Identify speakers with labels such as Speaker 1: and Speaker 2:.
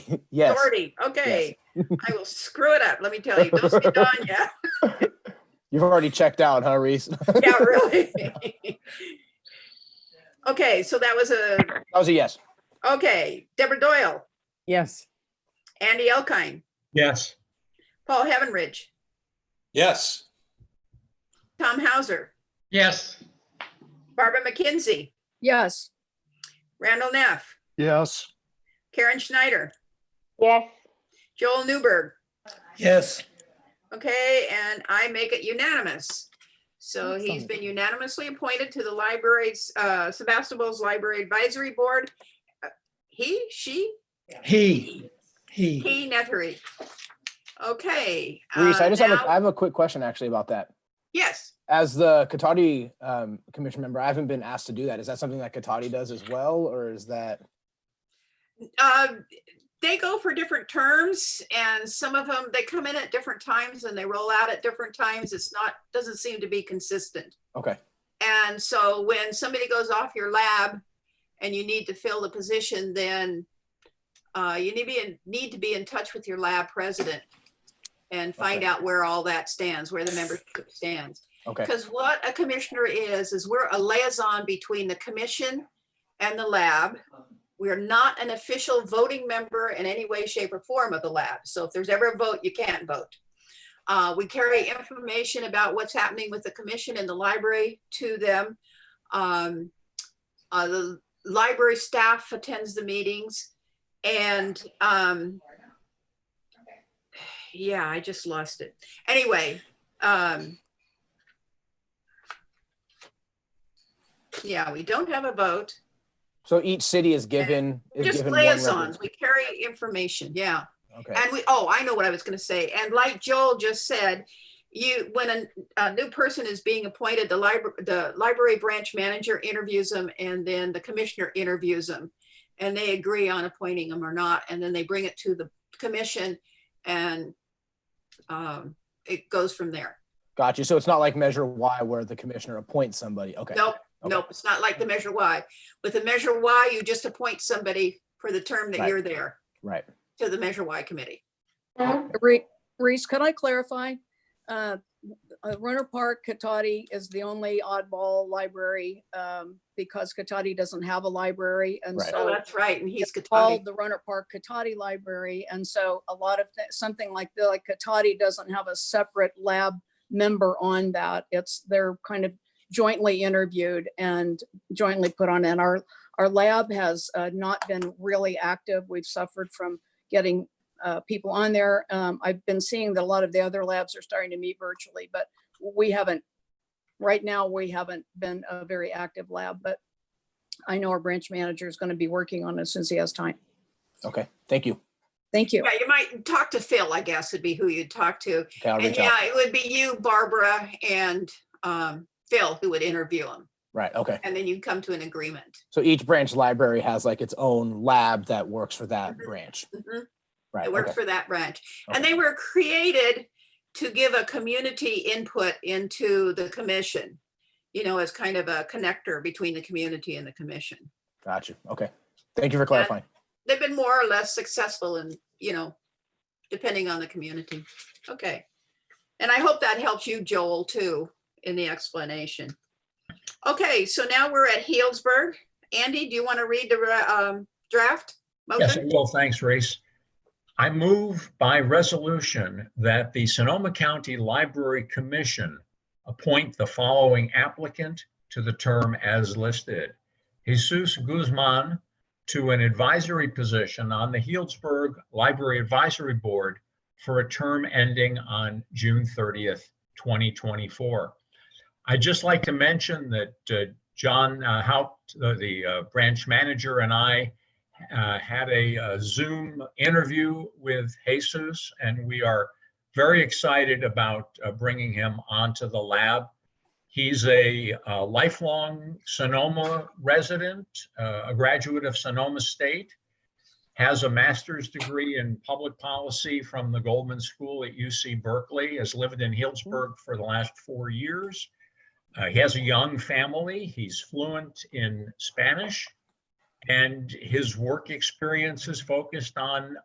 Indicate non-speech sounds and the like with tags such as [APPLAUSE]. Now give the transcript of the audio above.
Speaker 1: [LAUGHS] Yes.
Speaker 2: Doherty, okay. I will screw it up, let me tell you. Don't say Danya.
Speaker 1: You've already checked out, huh, Reese? [LAUGHS] that
Speaker 2: [LAUGHS] Yeah, really. [LAUGHS] Okay, so that was a,
Speaker 1: was a yes.
Speaker 2: okay, Deborah Doyle,
Speaker 3: Yes.
Speaker 2: Andy Elkine,
Speaker 4: Yes.
Speaker 2: Paul Heavenridge,
Speaker 5: Yes.
Speaker 2: Tom Hauser,
Speaker 4: Yes.
Speaker 2: Barbara McKenzie,
Speaker 3: Yes.
Speaker 2: Randall Neff,
Speaker 6: yes,
Speaker 2: Karen Schneider,
Speaker 7: yes,
Speaker 2: Joel Newberg,
Speaker 5: Yes.
Speaker 2: Okay, and I make it unanimous. So he's
Speaker 3: Excellent.
Speaker 2: been unanimously appointed to the library's, uh, Sebastopol's Library Advisory Board. Uh, He, she,
Speaker 4: He, he.
Speaker 2: he, Nethery. Okay.
Speaker 1: Reese,
Speaker 2: uh,
Speaker 1: I just have
Speaker 2: now-
Speaker 1: a, I have a quick question actually about that.
Speaker 2: Yes,
Speaker 1: As the Katati um, commission member, I haven't been asked to do that. Is that something that Katati does as well, or is that
Speaker 2: uh, they go for different terms and some of them, they come in at different times and they roll out at different times. It's not, doesn't seem to be consistent.
Speaker 1: okay?
Speaker 2: And so when somebody goes off your lab and you need to fill the position, then uh, you need to be in, need to be in touch with your lab president and find
Speaker 1: Okay.
Speaker 2: out where all that stands, where the membership stands.
Speaker 1: Okay.
Speaker 2: Because what a commissioner is, is we're a liaison between the commission and the lab. We are not an official voting member in any way, shape, or form of the lab. So if there's ever a vote, you can't vote. Uh, we carry information about what's happening with the commission and the library to them. Um, uh, the library staff attends the meetings and, um, yeah, I just lost it. Anyway, um, yeah, we don't have a vote.
Speaker 1: So each city is given is
Speaker 2: Just
Speaker 1: given one rep-
Speaker 2: liaisons. We carry information. Yeah.
Speaker 1: Okay.
Speaker 2: And we, oh, I know what I was gonna say. And like Joel just said, you, when a, a new person is being appointed, the library, the library branch manager interviews them and then the commissioner interviews them. And they agree on appointing them or not, and then they bring it to the commission and um, it goes from there.
Speaker 1: Got you. So it's not like Measure Y where the commissioner appoints somebody. Okay.
Speaker 2: Nope,
Speaker 1: Okay.
Speaker 2: nope, it's not like the Measure Y. With the Measure Y, you just appoint somebody for the term that
Speaker 1: Right.
Speaker 2: you're there
Speaker 1: Right.
Speaker 2: to the Measure Y committee.
Speaker 3: Re- Reese, could I clarify? Uh, uh, Runner Park, Katati is the only oddball library um, because Katati doesn't have a library. And
Speaker 1: Right.
Speaker 2: Oh,
Speaker 3: so
Speaker 2: that's right, and he's.
Speaker 3: it's
Speaker 2: Katati.
Speaker 3: called the Runner Park Katati Library. And so a lot of, thi- something like, the- like Katati doesn't have a separate lab member on that. It's, they're kind of jointly interviewed and jointly put on. And our, our lab has uh, not been really active. We've suffered from getting uh, people on there. Um, I've been seeing that a lot of the other labs are starting to meet virtually, but we haven't, right now, we haven't been a very active lab, but I know our branch manager is going to be working on it since he has time.
Speaker 1: Okay. Thank you.
Speaker 3: Thank you.
Speaker 2: Yeah, you might talk to Phil, I guess, would be who you'd talk to.
Speaker 1: Okay. I'll
Speaker 2: And
Speaker 1: reach out.
Speaker 2: yeah, it would be you, Barbara, and um, Phil who would interview him.
Speaker 1: Right. Okay.
Speaker 2: And then you'd come to an agreement.
Speaker 1: So each branch library has like its own lab that works for that
Speaker 2: Mhm.
Speaker 1: branch.
Speaker 2: Mhm.
Speaker 1: Right.
Speaker 2: It worked
Speaker 1: Okay.
Speaker 2: for that branch. And
Speaker 1: Okay.
Speaker 2: they were created to give a community input into the commission, you know, as kind of a connector between the community and the commission.
Speaker 1: Got you. Okay. Thank you for clarifying.
Speaker 2: They've been more or less successful in, you know, depending on the community. Okay. And I hope that helps you, Joel, too, in the explanation. Okay, so now we're at Healdsburg. Andy, do you want to read the re- um, draft?
Speaker 4: Yes, I
Speaker 2: motion?
Speaker 4: will. Thanks, Reese. I move by resolution that the Sonoma County Library Commission appoint the following applicant to the term as listed. Jesus Guzman to an advisory position on the Healdsburg Library Advisory Board for a term ending on June 30th, 2024. I'd just like to mention that uh, John uh, Haupt, uh, the uh, branch manager, and I uh, had a uh, Zoom interview with Jesus, and we are very excited about uh, bringing him onto the lab. He's a uh, lifelong Sonoma resident, uh, a graduate of Sonoma State, has a master's degree in public policy from the Goldman School at UC Berkeley, has lived in Healdsburg for the last four years. Uh, he has a young family. He's fluent in Spanish. And his work experience is focused on